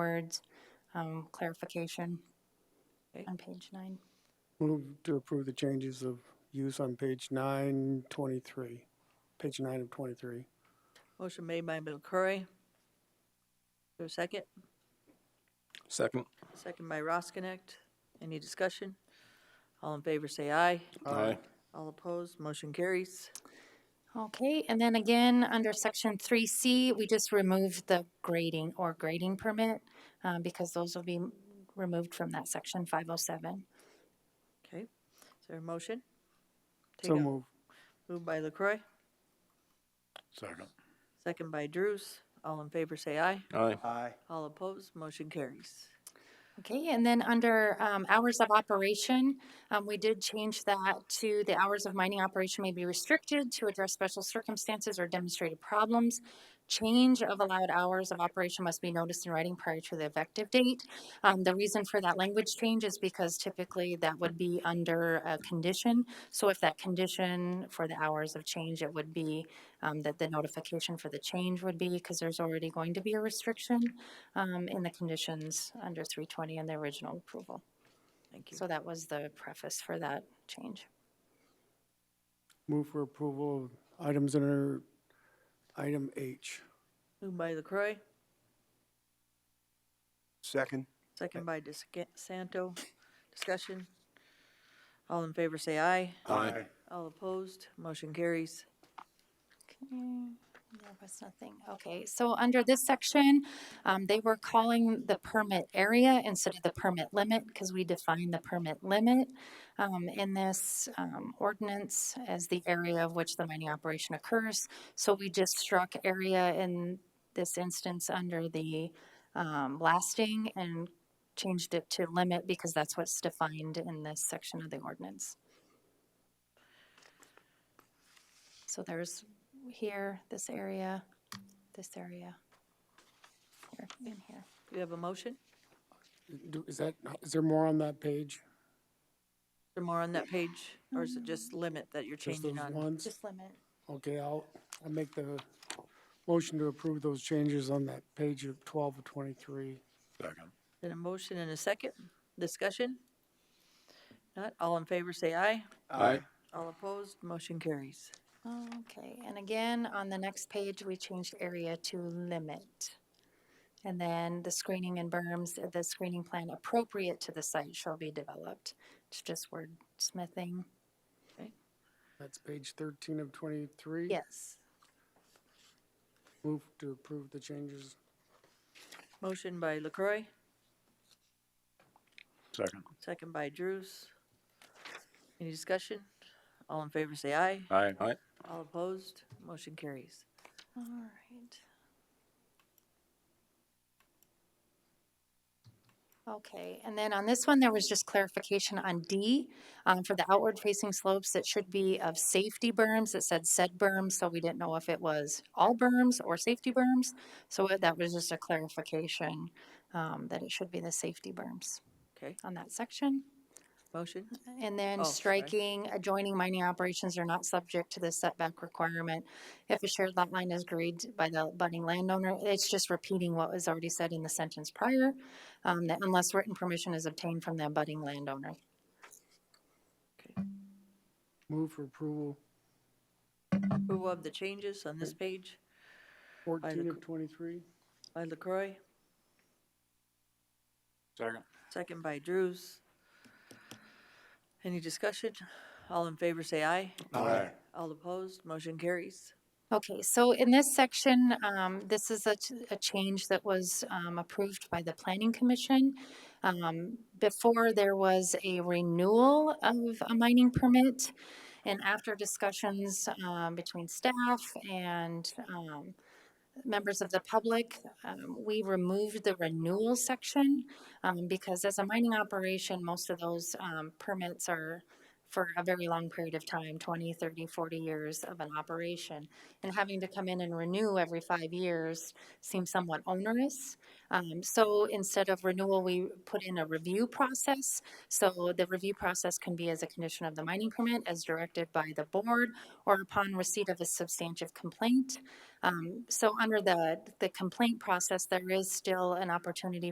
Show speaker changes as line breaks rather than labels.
words, um, clarification
Okay.
on page nine.
Move to approve the changes of use on page nine twenty-three, page nine of twenty-three.
Motion made by McCrory. Is there a second?
Second.
Second by Roskinick. Any discussion? All in favor, say aye.
Aye.
All opposed, motion carries.
Okay, and then again, under section three C, we just removed the grading or grading permit, uh, because those will be m- removed from that section five oh seven.
Okay, is there a motion?
So
Take a-
move.
Moved by LaCroy,
Second.
second by Drews. All in favor, say aye.
Aye.
Aye.
All opposed, motion carries.
Okay, and then under um, hours of operation, um, we did change that to the hours of mining operation may be restricted to address special circumstances or demonstrated problems. Change of allowed hours of operation must be noticed in writing prior to the effective date. Um, The reason for that language change is because typically that would be under a condition. So if that condition for the hours of change, it would be um, that the notification for the change would be, because there's already going to be a restriction um, in the conditions under 320 in the original approval.
Thank you.
So that was the preface for that change.
Move for approval of items under item H.
Moved by LaCroy,
Second.
second by DeSanto. Discussion? All in favor, say aye.
Aye.
All opposed, motion carries.
Mm, There was nothing, okay, so under this section, um, they were calling the permit area instead of the permit limit, because we define the permit limit, um, in this, um, ordinance as the area of which the mining operation occurs. So we just struck area in this instance under the, um, blasting and changed it to limit, because that's what's defined in this section of the ordinance. So there's here, this area, this area, here, and here.
Do you have a motion? Is
Do- Is that, is there more on that page?
there more on that page, or is it just limit that you're
Just those
changing on?
ones?
Just limit.
Okay, I'll, I'll make the motion to approve those changes on that page of twelve of twenty-three.
Second.
Then a motion and a second, discussion? Not, all in favor, say aye.
Aye.
All opposed, motion carries.
Okay, and again, on the next page, we changed area to limit. And then the screening and berms, the screening plan appropriate to the site shall be developed. It's just wordsmithing.
That's page thirteen of twenty-three.
Yes.
Move to approve the changes.
Motion by LaCroy,
Second.
second by Drews. Any discussion? All in favor, say aye.
Aye.
Aye.
All opposed, motion carries.
All right. Okay, and then on this one, there was just clarification on D. um, For the outward-facing slopes, it should be of safety berms. It said said berms, so we didn't know if it was all berms or safety berms. So it- that was just a clarification um, that it should be the safety berms
Okay,
on that section.
motion,
And
Oh,
then
sorry.
striking adjoining mining operations are not subject to the setback requirement. If a shared lot line is agreed by the budding landowner, it's just repeating what was already said in the sentence prior, um, that unless written permission is obtained from the budding landowner.
okay.
Move for approval
Approval of the changes on this page
fourteen
look-
of twenty-three.
by LaCroy,
Second.
second by Drews. Any discussion? All in favor, say aye.
Aye.
All opposed, motion carries.
Okay, so in this section, um, this is a, ch- a change that was, um, approved by the planning commission. Um, before there was a renewal of a mining permit. And after discussions, um, between staff and, um, members of the public, um, we removed the renewal section. Um, because as a mining operation, most of those, um, permits are for a very long period of time 20, 30, 40 years of an operation. And having to come in and renew every five years seems somewhat onerous. Um, so instead of renewal, we put in a review process. So the review process can be as a condition of the mining permit, as directed by the board, or upon receipt of a substantive complaint. Um, so under the, the complaint process, there is still an opportunity